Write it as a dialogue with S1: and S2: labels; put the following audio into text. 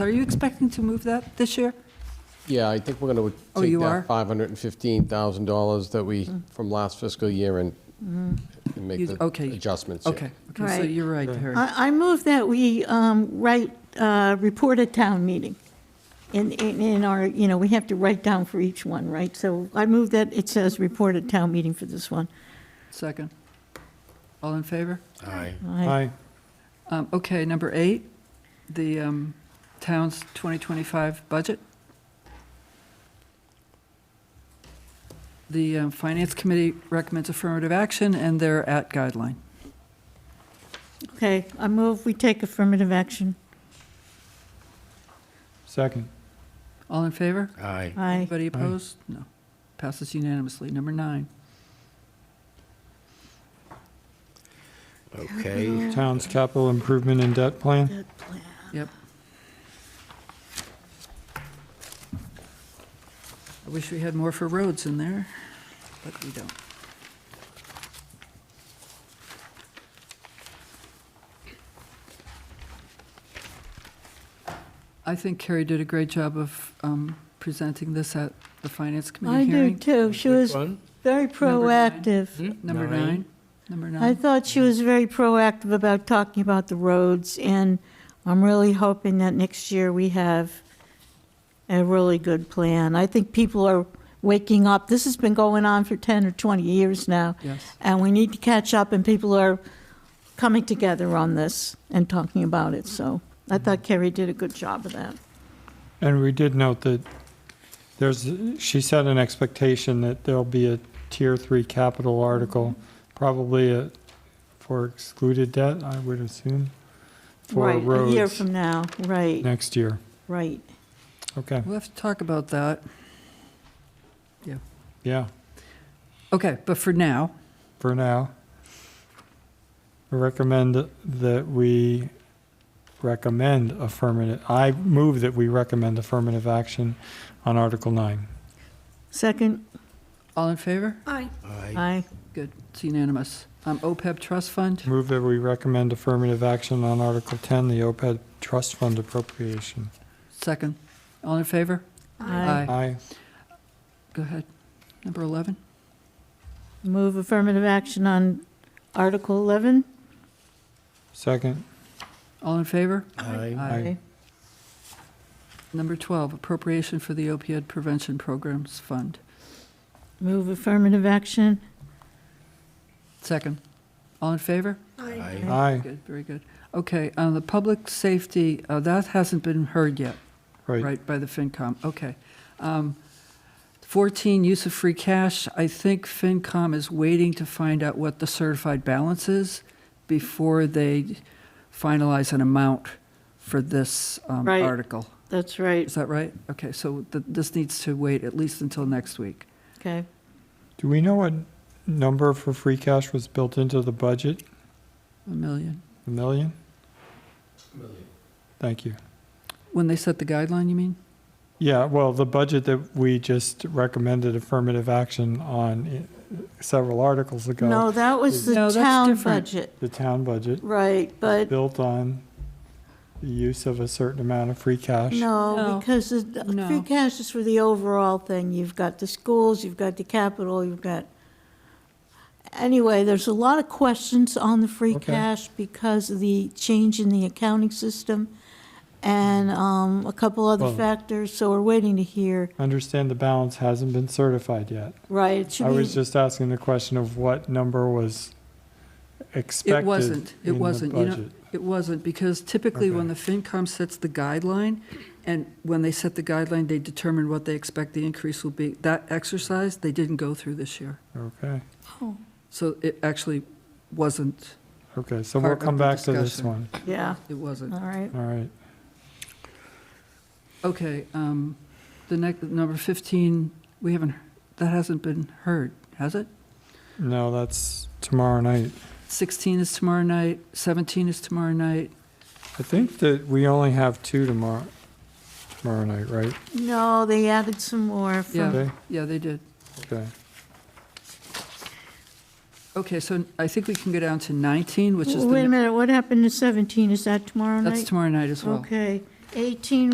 S1: Are you expecting to move that this year?
S2: Yeah, I think we're going to
S1: Oh,
S2: take
S1: you are? Mm-hmm.
S2: that $515,000 that we, from last fiscal year and and make
S1: You-
S2: the
S1: Mm-hmm. okay.
S2: adjustments. yeah.
S1: Okay, okay, so
S3: Right.
S1: you're right, Harry.
S3: I, I move that we um, write, uh, report a town meeting. In, in in our, you know, we have to write down for each one, right? So I move that it says report a town meeting for this one.
S1: Second. All in favor?
S2: Aye.
S3: I-
S1: Um, Okay, number eight, the um, town's 2025 budget. The um, Finance Committee recommends affirmative action, and they're at guideline.
S3: Okay, I move we take affirmative action.
S4: Second.
S1: All in favor?
S2: Aye.
S3: Aye.
S1: Anybody opposed? No. Passes unanimously. Number nine.
S2: Okay.
S4: Town's capital improvement and debt plan.
S1: Yep. I wish we had more for roads in there, but we don't. I think Carrie did a great job of um, presenting this at the Finance
S3: I
S1: Committee
S3: do
S1: hearing.
S3: too. She was very
S1: Number nine.
S3: proactive.
S1: Number
S4: Nine.
S1: nine, number
S3: I
S1: nine.
S3: thought she was very proactive about talking about the roads, and I'm really hoping that next year we have a really good plan. I think people are waking up. This has been going on for 10 or 20 years now,
S1: Yes,
S3: and we need to catch up, and people are coming together on this and talking about it, so I thought Kerry did a good job of that.
S4: And we did note that there's, she set an expectation that there'll be a tier three capital article, probably a, for excluded debt, I would assume, for
S3: Right, A year
S4: roads
S3: from now, right,
S4: next year.
S3: right.
S4: Okay,
S1: we'll have to talk about that.
S4: yeah,
S1: Okay, but for now,
S4: for now. I Recommend that we recommend affirmative, I move that we recommend affirmative action on Article nine.
S3: Second?
S1: all in favor?
S3: Aye. Aye.
S1: Good, it's unanimous. Um, OPEB trust fund,
S4: Move that we recommend affirmative action on Article 10, the OPEB trust fund appropriation.
S1: second. All in favor?
S3: Aye.
S4: Aye.
S1: Go ahead. Number 11,
S3: Move affirmative action on Article 11?
S4: Second.
S1: all in favor?
S2: Aye.
S4: Aye.
S1: Number 12, appropriation for the opioid prevention programs fund.
S3: Move affirmative action?
S1: Second. All in favor?
S2: Aye.
S4: Aye.
S1: Good, very good. Okay, on the public safety, uh, that hasn't been heard yet,
S4: Right.
S1: right, by the FinCom? Okay. Um, 14, use of free cash. I think FinCom is waiting to find out what the certified balance is before they finalize an amount for this um,
S3: Right.
S1: article.
S3: That's right,
S1: Is that right? Okay, so th- this needs to wait at least until next week.
S3: okay.
S4: Do we know what number for free cash was built into the budget?
S1: A million.
S4: A million? Thank you.
S1: When they set the guideline, you mean?
S4: Yeah, well, the budget that we just recommended affirmative action on i- several articles
S3: No,
S4: ago,
S3: that was
S1: No,
S3: the
S1: that's
S3: town
S1: different.
S3: budget.
S4: the town budget,
S3: Right, but
S4: built on the use of a certain amount of free cash.
S1: No.
S3: no, because the the free
S1: No.
S3: cash is for the overall thing. You've got the schools, you've got the capital, you've got, anyway, there's a lot of questions on the free
S4: Okay.
S3: cash because of the change in the accounting system and um, a couple other
S4: Well-
S3: factors, so we're waiting to hear.
S4: Understand the balance hasn't been certified yet.
S3: Right, it should
S4: I
S3: be.
S4: was just asking the question of what number was expected
S1: wasn't. It
S4: in the
S1: wasn't. You know-
S4: budget.
S1: It wasn't, because typically when the
S4: Okay.
S1: FinCom sets the guideline, and when they set the guideline, they determine what they expect the increase will be. That exercise, they didn't go through this year.
S4: Okay,
S3: Oh,
S1: So it actually wasn't,
S4: okay, so
S1: Part
S4: we'll
S1: of
S4: come
S1: the
S4: back to this
S1: discussion.
S4: one.
S3: Yeah,
S1: it wasn't.
S3: all right.
S4: All right,
S1: Okay, um, the next, number 15, we haven't, that hasn't been heard, has it?
S4: no, that's tomorrow night.
S1: 16 is tomorrow night, 17 is tomorrow night.
S4: I think that we only have two tomorrow, tomorrow night, right?
S3: No, they added some more
S1: Yeah.
S3: from,
S4: Okay,
S1: Yeah, they did.
S4: okay.
S1: Okay, so I think we can go down to 19, which is the.
S3: wait a
S1: ne-
S3: minute, what happened to 17? Is that tomorrow night?
S1: That's tomorrow night as well.
S3: Okay, 18